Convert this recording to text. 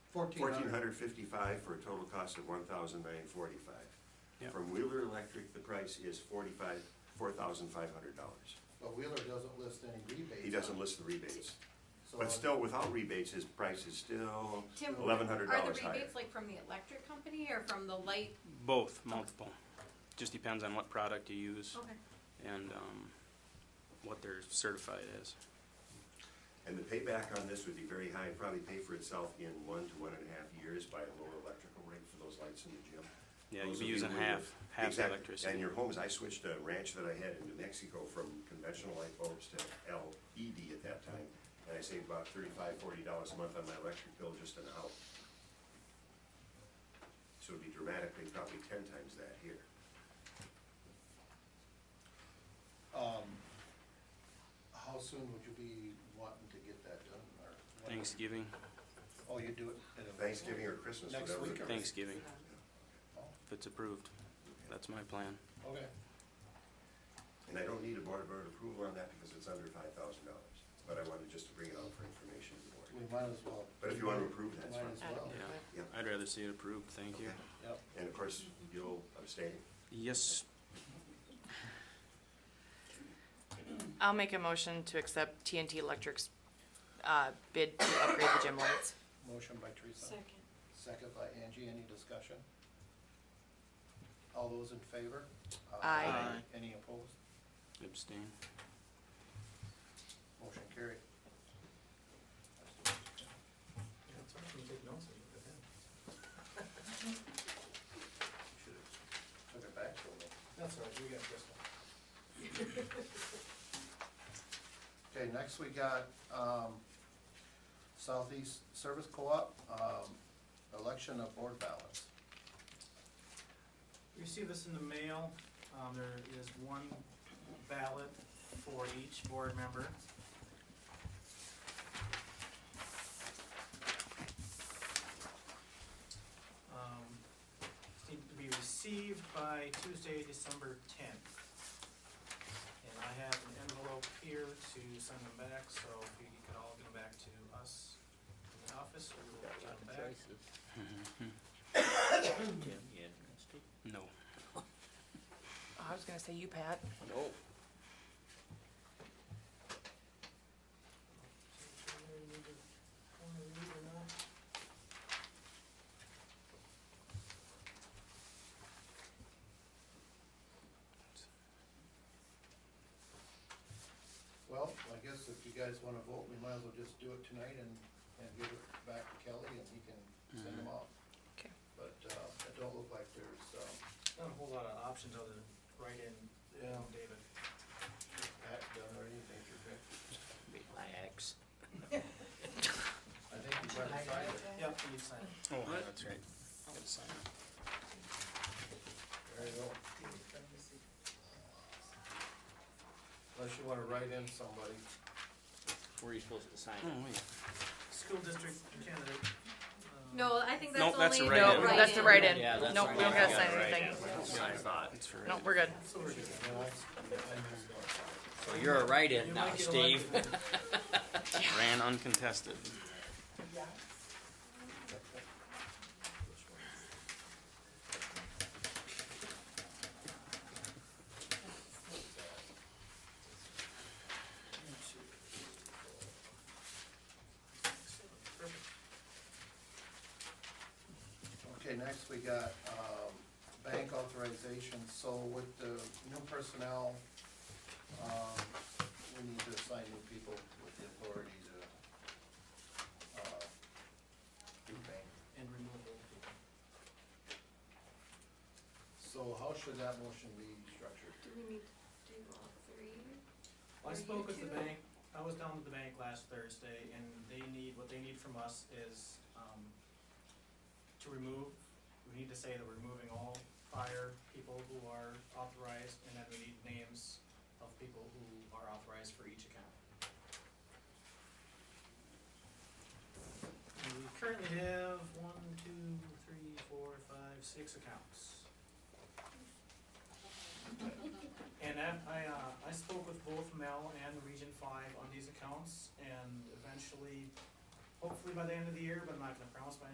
Fourteen $1,400. hundred fifty-five for a total cost of one thousand nine forty-five. Yep. From Wheeler Electric, the price is forty-five, four thousand five hundred dollars. But Wheeler doesn't list any rebates. He doesn't list the rebates, So, but still, without rebates, his price is still Tim, eleven hundred Are dollars the higher. rebates like from the electric company or from the light? Both, multiple. Just depends on what product you use Okay. and um, what they're certified as. And the payback on this would be very high, probably pay for itself in one to one and a half years by a lower electrical rate for those lights in the gym. Yeah, you'd Those be would using really- half, half the Exactly. electricity. And your homes, I switched a ranch that I had in New Mexico from conventional light bulbs to LED at that time. And I saved about thirty-five, forty dollars a month on my electric bill just an hour. So it'd be dramatically, probably ten times that here. um, how soon would you be wanting to get that done, or? when- Thanksgiving, Oh, you do it at a. Thanksgiving or Christmas, Next whatever. week the- or- Thanksgiving, Oh, if it's approved. That's my plan. Okay, And I don't need a board, board approval on that because it's under five thousand dollars. But I wanted just to bring it out for information to the board. we might as well. But if you want to approve, that's Might as fine. well, Yeah, I'd rather see it approved, thank you. Okay. yep. And of course, you'll abstain. Yes, I'll make a motion to accept TNT Electric's uh, bid to upgrade the gym lights. Motion by Teresa. Second. Second by Angie, any discussion? All those in favor? Aye. Aye. Any opposed? abstain. Motion carried. That's all, you take notes, you can. Took it back for me. That's all right, we got this one. Okay, next we got um, Southeast Service Co-op, um, election of board ballots. You see this in the mail, um, there is one ballot for each board member. Um, it's need to be received by Tuesday, December tenth. And I have an envelope here to send them back, so if you could all get them back to us in the office, we will get them back. No. Oh, I was gonna say you, Pat. Well, I guess if you guys want to vote, we might as well just do it tonight and, and give it back to Kelly and he can send them off. Okay. But uh, it don't look like there's, um, Not a whole lot of options other than write in, Yeah. um, David. Pat done or anything, Vic. I think you might have signed it. Yep, you sign it. Oh, that's right. Gotta sign it. There you go. Unless you want to write in somebody. Where are you supposed to sign? Oh, wait. School district candidate. um, No, I think Nope, that's that's a only. write-in. No, that's the write-in. Yeah, that's Nope, the we don't gotta sign write-in. anything. It's for- Nope, we're good. So we're good. And I- I missed one. So you're a write-in You now, might get Steve. elected. Ran uncontested. Perfect. Okay, next we got um, bank authorization, so with the new personnel, um, we need to assign new people with the authority to uh, do bank. And remove old people. So how should that motion be structured? Do we need to do all three? Well, Are I you spoke with the two? bank, I was down at the bank last Thursday, and they need, what they need from us is, um, to remove, we need to say that we're removing all prior people who are authorized, and then we need names of people who are authorized for each account. And We currently have one, two, three, four, five, six accounts. And I, I, uh, I spoke with both Mel and Region Five on these accounts, and eventually, hopefully by the end of the year, but I'm not gonna promise by